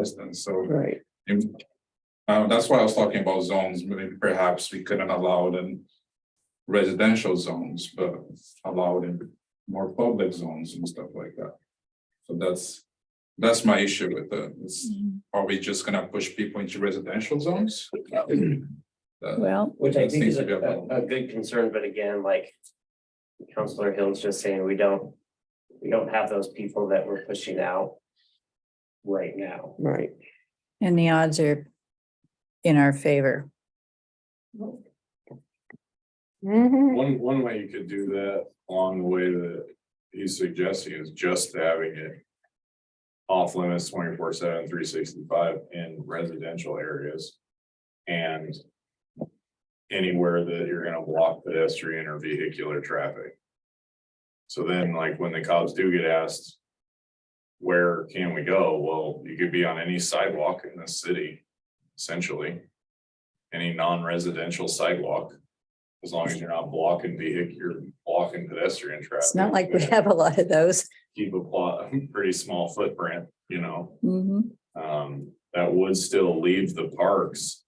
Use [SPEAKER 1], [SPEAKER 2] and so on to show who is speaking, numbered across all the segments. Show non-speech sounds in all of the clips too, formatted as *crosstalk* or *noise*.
[SPEAKER 1] residents, so.
[SPEAKER 2] Right,
[SPEAKER 1] Um, that's why I was talking about zones, maybe perhaps we couldn't allow it in residential zones, but allow it in more public zones and stuff like that. So that's, that's my issue with the, is are we just gonna push people into residential zones? That-
[SPEAKER 2] well,
[SPEAKER 3] Which I
[SPEAKER 1] That
[SPEAKER 3] think
[SPEAKER 1] seems
[SPEAKER 3] is
[SPEAKER 1] to
[SPEAKER 3] a,
[SPEAKER 1] be a problem.
[SPEAKER 3] a a good concern, but again, like Counselor Hill's just saying, we don't, we don't have those people that we're pushing out right now.
[SPEAKER 2] right,
[SPEAKER 4] And the odds are in our favor.
[SPEAKER 5] Mm-hmm. Uh,
[SPEAKER 6] One, one way you could do that along the way that he's suggesting is just having it. Off limits 24/7, 365 in residential areas. And. Anywhere that you're gonna block pedestrian or vehicular traffic. So then like when the cops do get asked. Where can we go? Well, you could be on any sidewalk in this city, essentially. Any non-residential sidewalk. As long as you're not blocking vehicle, you're blocking pedestrian traffic.
[SPEAKER 4] It's not like we have a lot of those.
[SPEAKER 6] Keep a plot, *laughs* pretty small footprint, you know,
[SPEAKER 4] Mhm.
[SPEAKER 6] um, that would still leave the parks.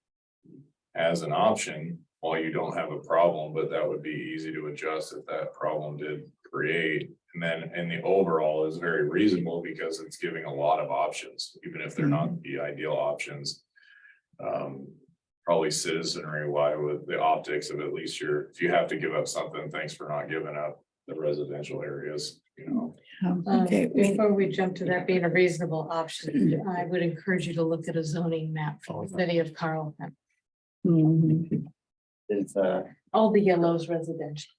[SPEAKER 6] As an option, while you don't have a problem, but that would be easy to adjust if that problem did create. And then, and the overall is very reasonable because it's giving a lot of options, even if they're not the ideal options.
[SPEAKER 4] Mm-hmm.
[SPEAKER 6] Um, probably citizenry wise with the optics of at least you're, if you have to give up something, thanks for not giving up the residential areas, you know.
[SPEAKER 4] Um,
[SPEAKER 5] Um,
[SPEAKER 4] Okay, we-
[SPEAKER 5] Before we jump to that being a reasonable option, I would encourage you to look at a zoning map for the city of Carlton.
[SPEAKER 4] mhm.
[SPEAKER 3] Is, uh,
[SPEAKER 5] All the yellows residential.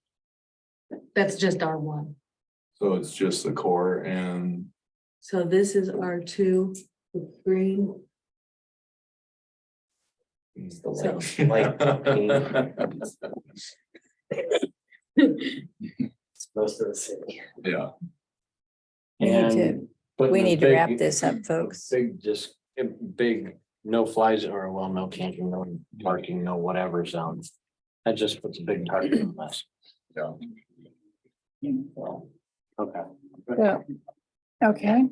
[SPEAKER 5] That's just R one.
[SPEAKER 6] So it's just the core and
[SPEAKER 5] So this is R two, green.
[SPEAKER 3] it's the light, light green, it's most of the city.
[SPEAKER 6] yeah,
[SPEAKER 4] We need to-
[SPEAKER 7] And. but
[SPEAKER 4] we
[SPEAKER 7] the
[SPEAKER 4] need to wrap
[SPEAKER 7] big-
[SPEAKER 4] this up, folks.
[SPEAKER 7] Big, just, um, big, no fly zone, or well, no camping, no parking, no whatever zone. That just puts a big target on us.
[SPEAKER 6] yeah.
[SPEAKER 7] Well, Okay.
[SPEAKER 4] Yeah. Okay,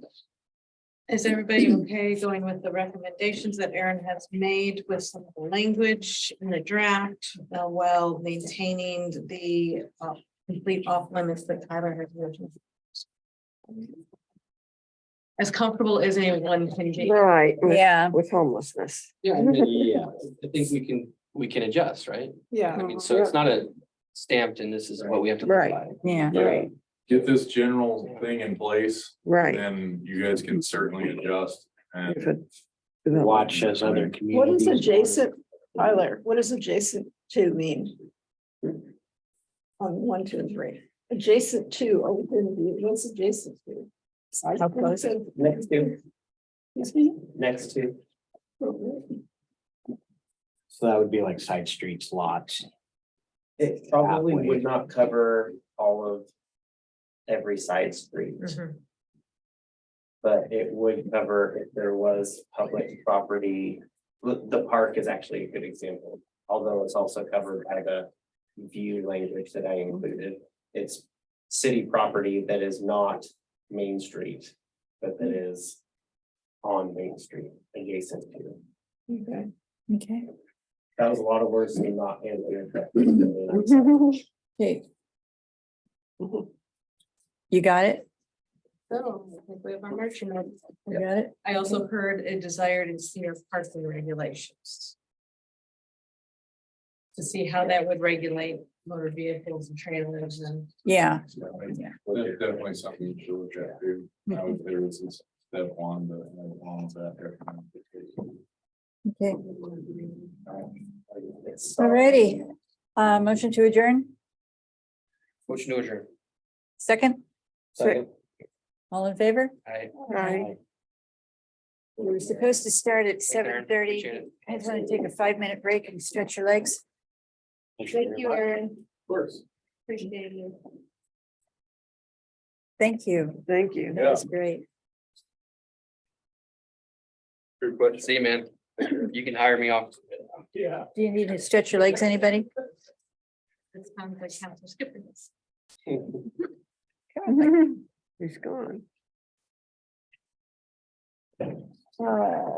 [SPEAKER 5] Is everybody okay going with the recommendations that Aaron has made with some of the language in the draft, uh, while maintaining the uh, complete off limits that Tyler has written? As comfortable as anyone can be.
[SPEAKER 2] right, with-
[SPEAKER 4] yeah,
[SPEAKER 2] with homelessness.
[SPEAKER 8] Yeah,
[SPEAKER 2] *laughs*
[SPEAKER 8] I mean, yeah, I think we can, we can adjust, right?
[SPEAKER 2] Yeah.
[SPEAKER 8] I mean, so it's not a stamped and this is what we have to.
[SPEAKER 2] Right.
[SPEAKER 8] provide.
[SPEAKER 4] yeah.
[SPEAKER 2] Right,
[SPEAKER 6] Get this general thing in place,
[SPEAKER 2] right.
[SPEAKER 6] then you guys can certainly adjust and.
[SPEAKER 2] If it-
[SPEAKER 7] Watch as other communities.
[SPEAKER 9] What is adjacent, Tyler, what does adjacent to mean? On one, two, and three, adjacent to or within the, what's adjacent to?
[SPEAKER 4] How close?
[SPEAKER 3] Next to,
[SPEAKER 9] Excuse me?
[SPEAKER 3] next to,
[SPEAKER 7] So that would be like side streets, lots.
[SPEAKER 3] it probably
[SPEAKER 7] Halfway.
[SPEAKER 3] would not cover all of every side street.
[SPEAKER 5] Mm-hmm.
[SPEAKER 3] But it would cover if there was public property, the, the park is actually a good example. Although it's also covered by the view language that I included. It's city property that is not Main Street, but that is on Main Street adjacent to.
[SPEAKER 9] Okay.
[SPEAKER 4] Okay.
[SPEAKER 3] That was a lot of words and not answered.
[SPEAKER 4] Okay. You got it?
[SPEAKER 5] So, I think we have our marching orders.
[SPEAKER 4] You got it?
[SPEAKER 5] I also heard a desire to see our parking regulations. To see how that would regulate motor vehicles and trailers and.
[SPEAKER 4] Yeah,
[SPEAKER 6] That's definitely something to look at, too. I would there was this step one, but along with that.
[SPEAKER 4] okay,
[SPEAKER 3] All
[SPEAKER 4] alrighty. Uh, motion to adjourn,
[SPEAKER 8] Motion to adjourn.
[SPEAKER 4] second,
[SPEAKER 3] Second,
[SPEAKER 4] all in favor?
[SPEAKER 8] I.
[SPEAKER 2] Right.
[SPEAKER 4] We were supposed to start at
[SPEAKER 8] Thank you, Erin.
[SPEAKER 4] seven thirty.
[SPEAKER 8] Appreciate it.
[SPEAKER 4] I just want to take a five minute break and stretch your legs.
[SPEAKER 7] Thank you.
[SPEAKER 9] Erin.
[SPEAKER 3] of course.
[SPEAKER 9] Appreciate you.
[SPEAKER 4] Thank you.
[SPEAKER 2] Thank you.
[SPEAKER 4] That was great.
[SPEAKER 6] Good question.
[SPEAKER 8] See, you, man, you can hire me off.
[SPEAKER 4] Do you need to stretch your legs, anybody?
[SPEAKER 5] It sounds like Council Skipper's.
[SPEAKER 2] He's gone.
[SPEAKER 9] Uh,